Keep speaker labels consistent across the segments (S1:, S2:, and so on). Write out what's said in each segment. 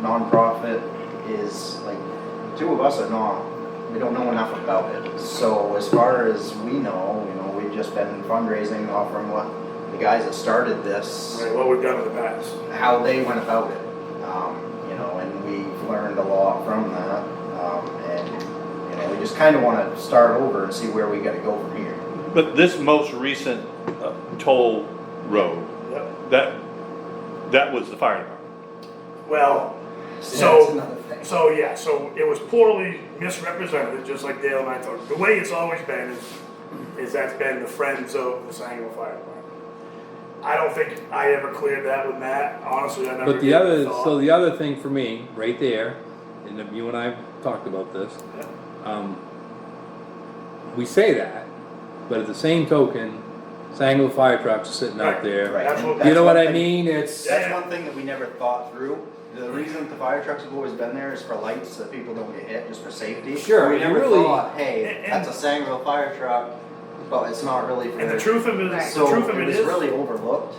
S1: nonprofit is, like, two of us are not, we don't know enough about it. So as far as we know, you know, we've just been fundraising off from what the guys that started this
S2: Right, what we've done in the past.
S1: how they went about it. Um, you know, and we've learned a lot from that. Um, and you know, we just kind of want to start over and see where we got to go from here.
S3: But this most recent uh, toll road,
S2: Yep.
S3: that, that was the fire department.
S2: Well,
S1: that's
S2: so,
S1: another thing.
S2: so yeah, so it was poorly misrepresented, just like Dale and I talked. The way it's always been is, is that's been the friends of the Sangerville Fire Department. I don't think I ever cleared that with Matt, honestly, I never. gave
S4: But the
S2: it
S4: other,
S2: thought.
S4: so the other thing for me, right there, and if you and I have talked about this,
S2: Yeah.
S4: um, we say that, but at the same token, Sangerville fire trucks are sitting out
S2: Right,
S4: there.
S1: right.
S2: That's what-
S1: and
S4: You know what
S1: one
S4: I
S1: thing-
S4: mean? It's,
S2: Yeah.
S1: That's one thing that we never thought through. The reason the fire trucks have always been there is for lights, so that people don't get hit, just for safety.
S4: Sure,
S1: We
S4: you
S1: never
S4: really-
S1: thought, hey,
S2: And-
S1: that's a Sangerville fire truck, but it's not really for.
S2: And the truth of it is, the
S1: So
S2: truth of
S1: it
S2: it
S1: was
S2: is,
S1: really overlooked.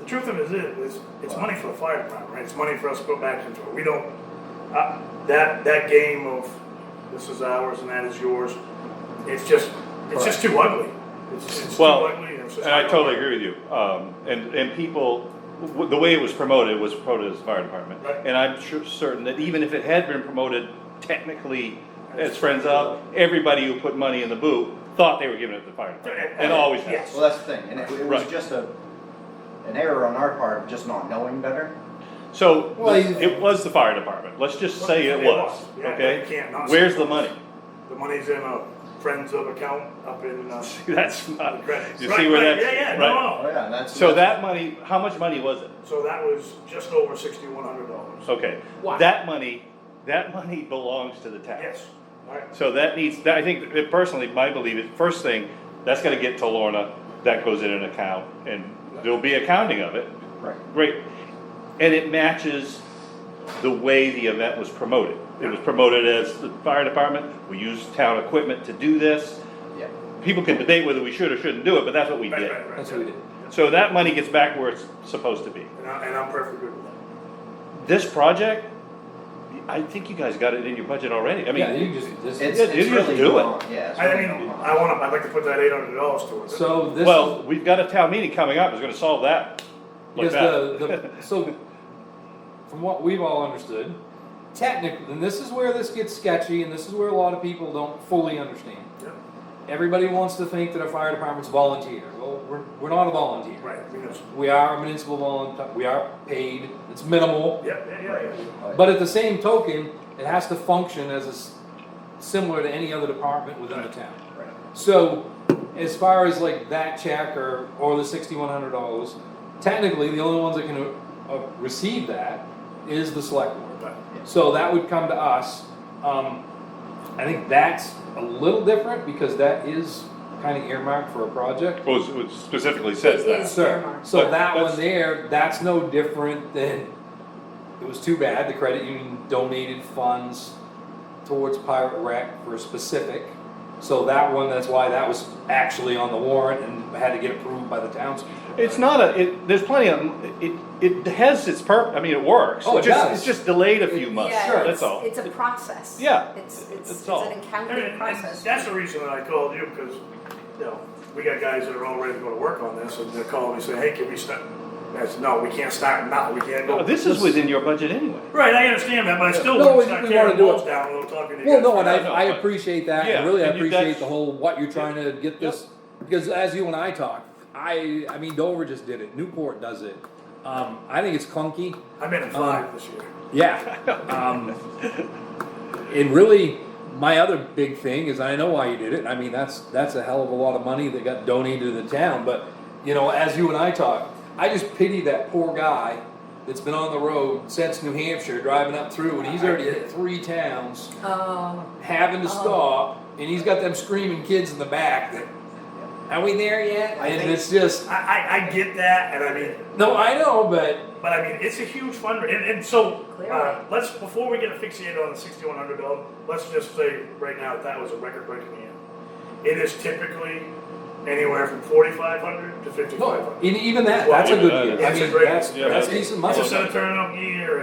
S2: the truth of it is, it's, it's money for the fire department, right? It's money for us to put back into it. We don't, uh, that, that game of this is ours and that is yours, it's just, it's just too ugly. It's, it's too
S3: Well,
S2: ugly. it's just
S3: And I
S2: not
S3: totally
S2: gonna work.
S3: agree with you. Um, and, and people, w- the way it was promoted was promoted as the fire department.
S2: Right.
S3: And I'm sure, certain that even if it had been promoted technically as Friends of, everybody who put money in the boot thought they were giving it to the fire department. And always has.
S2: Yes.
S1: Well, that's the thing, and it, it was
S3: Right.
S1: just a, an error on our part, of just not knowing better.
S3: So,
S4: Well, you-
S3: it was the fire department. Let's just say it
S2: It
S3: was,
S2: was. Yeah, you
S3: okay?
S2: can't not say
S3: Where's
S2: it
S3: the
S2: was.
S3: money?
S2: The money's in a friends of account up in, uh.
S3: That's not,
S2: credits.
S3: you
S2: Right,
S3: see where
S2: right,
S3: that's.
S2: Yeah, yeah,
S3: right.
S2: no,
S1: Oh,
S2: no.
S1: yeah, that's.
S3: So that money, how much money was it?
S2: So that was just over sixty-one hundred dollars.
S3: Okay,
S4: Wow.
S3: that money, that money belongs to the town.
S2: Yes, alright,
S3: So that needs, that- I think that personally, my belief is, first thing, that's gonna get to Lorna, that goes in an account, and there'll be accounting of it,
S1: Right.
S3: great. And it matches the way the event was promoted. It was promoted as the fire department, we used town equipment to do this.
S1: Yeah.
S3: People can debate whether we should or shouldn't do it, but that's what we
S2: right,
S3: did.
S2: right, right.
S4: that's what we
S2: yeah.
S4: did.
S3: So that money gets back where it's supposed to be.
S2: And I, and I'm perfectly good with that.
S3: This project, I think you guys got it in your budget already, I
S4: Yeah,
S3: mean,
S4: you just, this-
S1: It's,
S3: Yeah,
S1: it's
S3: you just
S1: really
S3: do it.
S1: gone, yeah. it's
S2: I
S1: really
S2: mean,
S1: gone.
S2: I wanna, I'd like to put that eight hundred dollars towards it.
S4: so this.
S3: well, we've got a town meeting coming up, it's gonna solve that. like
S4: Because
S3: that.
S4: the, the, so, from what we've all understood, technically, and this is where this gets sketchy, and this is where a lot of people don't fully understand.
S2: Yep.
S4: Everybody wants to think that our fire department's volunteer. Well, we're, we're not a volunteer.
S2: Right, we know.
S4: We are a municipal volunteer, we are paid, it's minimal,
S2: Yeah, yeah, yeah,
S1: Right.
S2: yeah.
S4: but at the same token, it has to function as a, s- similar to any other department within the town.
S1: Right.
S4: So, as far as like that check or, or the sixty-one hundred dollars, technically, the only ones that can uh, uh, receive that is the select board.
S2: Right.
S4: So that would come to us. Um, I think that's a little different because that is kind of earmarked for a project.
S3: Well, it's- it specifically says
S5: It
S3: that.
S5: is.
S4: Sir, so
S3: But
S4: that
S3: that's-
S4: one there, that's no different than, it was too bad, the credit union donated funds towards Pirate Rec for specific. So that one, that's why that was actually on the warrant and had to get approved by the townspeople.
S3: It's not a, it, there's plenty of, it, it has its purp, I mean, it works.
S4: Oh, it
S3: just-
S4: does.
S3: It's just delayed a few
S4: It-
S3: months,
S5: Yeah,
S4: Sure.
S3: that's
S5: it's-
S3: all.
S5: It's a process.
S3: Yeah,
S5: It's,
S3: it's
S5: it's, it's
S3: all.
S5: an
S2: And-
S5: accounting
S2: and
S5: process.
S2: That's the reason that I called you, because, you know, we got guys that are all ready to go to work on this, and they're calling me saying, hey, can we start? I said, no, we can't start now, we can't
S3: Uh,
S2: go.
S3: This is within your budget anyway.
S2: Right, I understand that, but I still
S4: No,
S2: wouldn't
S4: we-
S2: start
S4: we
S2: tearing
S4: wanna do
S2: walls
S4: it.
S2: down without talking to you.
S4: Well, no,
S2: guys.
S4: and I,
S3: No, no,
S4: I
S3: but-
S4: appreciate that,
S3: Yeah,
S4: and really, I
S3: and you-
S4: appreciate
S3: that's-
S4: the whole, what you're trying to get this, because as you and I talk, I, I mean, Dover just did it, Newport does it. Um, I Uh, think it's clunky,
S2: I'm in a five this year.
S4: Yeah. Um, and really, my other big thing is I know why you did it. I mean, that's that's a hell of a lot of money that got donated to the town. But you know, as you and I talk, I just pity that poor guy that's been on the road since New Hampshire, driving up through, and he's already hit three towns,
S5: Oh,
S4: having to stop, and he's got them screaming kids in the back. That, are we there yet?
S1: I
S4: and
S1: think-
S4: it's just
S2: I, I, I get that, and I mean,
S4: no, I know, but
S2: But I mean, it's a huge fundraiser, and, and so
S5: Clearly.
S2: uh, let's before we get asphyxiated on the sixty-one hundred dollar. Let's just say right now that was a record-breaking year. It is typically anywhere from forty-five hundred to fifty-five
S4: no,
S2: hundred.
S4: and even that,
S2: Well,
S4: Oh, that's a
S3: even
S4: good
S3: that,
S4: year. I
S2: it's a
S4: mean,
S2: great-
S4: that's,
S3: yeah,
S4: that's
S3: that's-
S4: decent money.
S2: It's a set of turnout year.